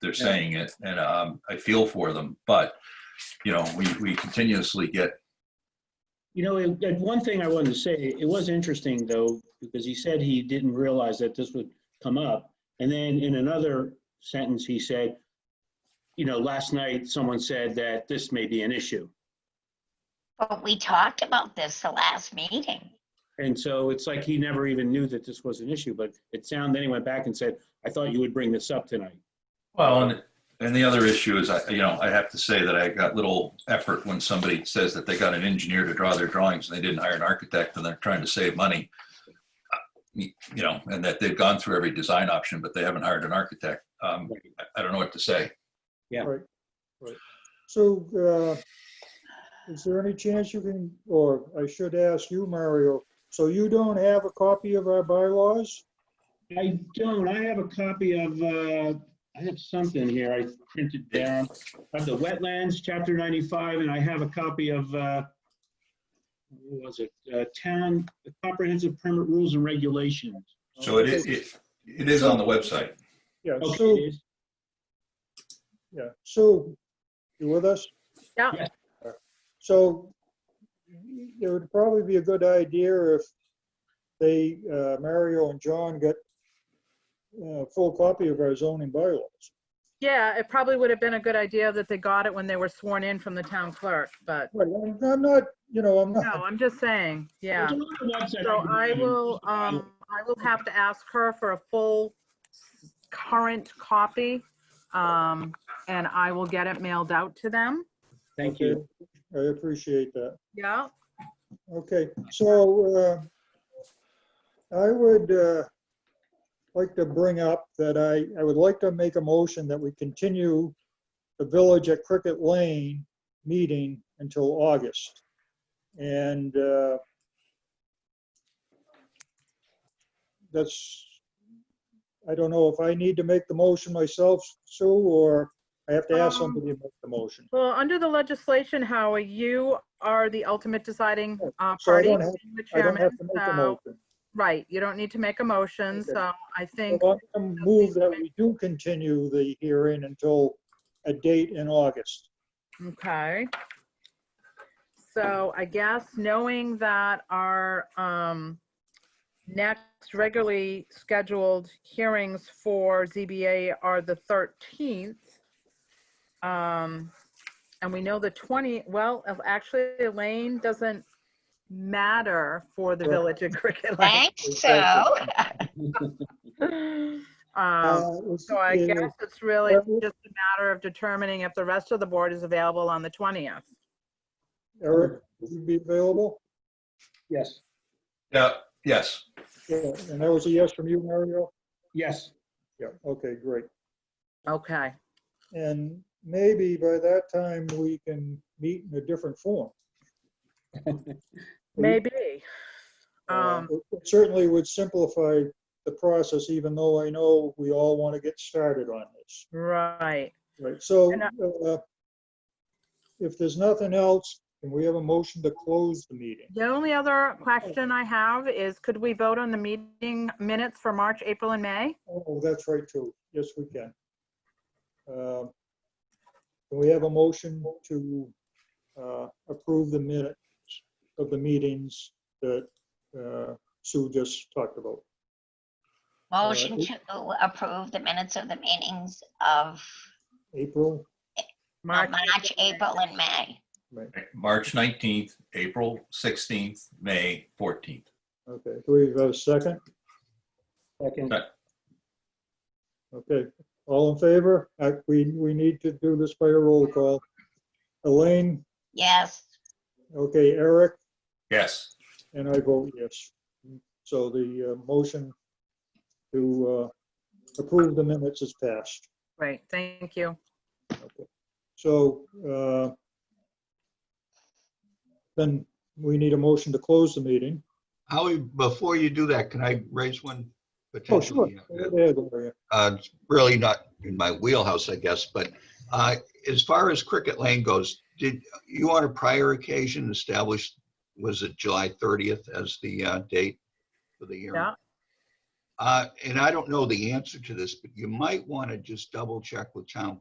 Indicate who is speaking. Speaker 1: they're
Speaker 2: Yeah.
Speaker 1: saying it, and um, I feel for them, but, you know, we, we continuously get,
Speaker 2: You know, it- and one thing I wanted to say, it was interesting though, because he said he didn't realize that this would come up. And then in another sentence, he said, you know, last night, someone said that this may be an issue.
Speaker 3: But we talked about this the last meeting.
Speaker 2: And so it's like he never even knew that this was an issue, but it sounded, then he went back and said, I thought you would bring this up tonight.
Speaker 1: well, and, and the other issue is, I, you know, I have to say that I got little effort when somebody says that they got an engineer to draw their drawings and they didn't hire an architect and they're trying to save money. Uh, You know, and that they've gone through every design option, but they haven't hired an architect. Um, I, I don't know what to say.
Speaker 2: Yeah.
Speaker 4: Right, right. So, uh, is there any chance you can, or I should ask you, Mario, so you don't have a copy of our bylaws?
Speaker 2: I don't, I have a copy of, uh, I have something here I printed down of the wetlands, chapter 95, and I have a copy of, uh, what was it, Uh, town the comprehensive permit rules and regulations.
Speaker 1: So it is, it, it is on the website.
Speaker 4: Yeah,
Speaker 2: Okay,
Speaker 4: Sue,
Speaker 2: it is.
Speaker 4: yeah, Sue, you with us?
Speaker 5: Yeah.
Speaker 4: So it would probably be a good idea if they, uh, Mario and John got a full copy of our zoning bylaws.
Speaker 5: Yeah, it probably would have been a good idea that they got it when they were sworn in from the town clerk, but,
Speaker 4: Right, I'm I'm not, you know, I'm
Speaker 5: no,
Speaker 4: not,
Speaker 5: I'm just saying, yeah.
Speaker 2: There's another website
Speaker 5: So
Speaker 2: can
Speaker 5: I
Speaker 2: find.
Speaker 5: will, um, I will have to ask her for a full s- current copy. Um, and I will get it mailed out to them.
Speaker 2: Thank you.
Speaker 4: I appreciate that.
Speaker 5: Yeah,
Speaker 4: Okay, so uh, I would uh, like to bring up that I, I would like to make a motion that we continue the Village at Cricket Lane meeting until August. And uh, that's, I don't know if I need to make the motion myself, Sue, or I have to ask
Speaker 5: Um,
Speaker 4: somebody to make the motion.
Speaker 5: well, under the legislation, Howie, you are the ultimate deciding uh,
Speaker 4: Oh, So I
Speaker 5: party,
Speaker 4: don't have-
Speaker 5: being the
Speaker 4: I don't
Speaker 5: chairman,
Speaker 4: have to make the
Speaker 5: so,
Speaker 4: motion.
Speaker 5: right, you don't need to make a motion,
Speaker 4: Okay.
Speaker 5: so I think,
Speaker 4: Well, I move that we do continue the hearing until a date in August.
Speaker 5: Okay. So I guess knowing that our um, next regularly scheduled hearings for ZBA are the 13th. um, And we know the 20, well, actually Elaine doesn't matter for the village of Cricket Lake.
Speaker 3: Thanks, so.
Speaker 5: Um,
Speaker 4: Uh, let's-
Speaker 5: So I
Speaker 4: uh,
Speaker 5: guess it's really
Speaker 4: Well-
Speaker 5: just a matter of determining if the rest of the board is available on the 20th.
Speaker 4: Eric, would you be available?
Speaker 2: Yes,
Speaker 1: Yeah, yes.
Speaker 4: Yeah, and that was a yes from you, Mario?
Speaker 2: yes.
Speaker 4: Yeah, okay, great.
Speaker 5: Okay.
Speaker 4: And maybe by that time, we can meet in a different form.
Speaker 5: Maybe.
Speaker 4: Uh,
Speaker 5: Um,
Speaker 4: It Certainly would simplify the process, even though I know we all want to get started on this.
Speaker 5: right.
Speaker 4: Right, so
Speaker 5: And I-
Speaker 4: uh, if there's nothing else, can we have a motion to close the meeting?
Speaker 5: The only other question I have is, could we vote on the meeting minutes for March, April, and May?
Speaker 4: Oh, that's right, too. Yes, we can. Uh, Can we have a motion to uh, approve the minutes of the meetings that uh, Sue just talked about?
Speaker 3: Motion to approve the minutes of the meetings of
Speaker 4: April,
Speaker 5: March,
Speaker 3: March, April, and May.
Speaker 1: March 19th, April 16th, May 14th.
Speaker 4: okay, do we have a second?
Speaker 2: Second.
Speaker 4: Okay, all in favor? Uh, We, we need to do this by a roll call. Elaine,
Speaker 3: Yes,
Speaker 4: okay, Eric,
Speaker 1: Yes.
Speaker 4: And I vote yes. So the uh, motion to uh, approve the minutes is passed.
Speaker 5: Great, thank you.
Speaker 4: So uh, then we need a motion to close the meeting.
Speaker 6: Howie, before you do that, can I raise one?
Speaker 4: Oh, sure.
Speaker 6: potentially?
Speaker 4: Go ahead, Gloria.
Speaker 6: Uh, it's Really not in my wheelhouse, I guess, but uh, as far as Cricket Lane goes, did you on a prior occasion establish, was it July 30th as the uh, date for the year?
Speaker 5: Yeah.
Speaker 6: Uh, And I don't know the answer to this, but you might want to just double check with town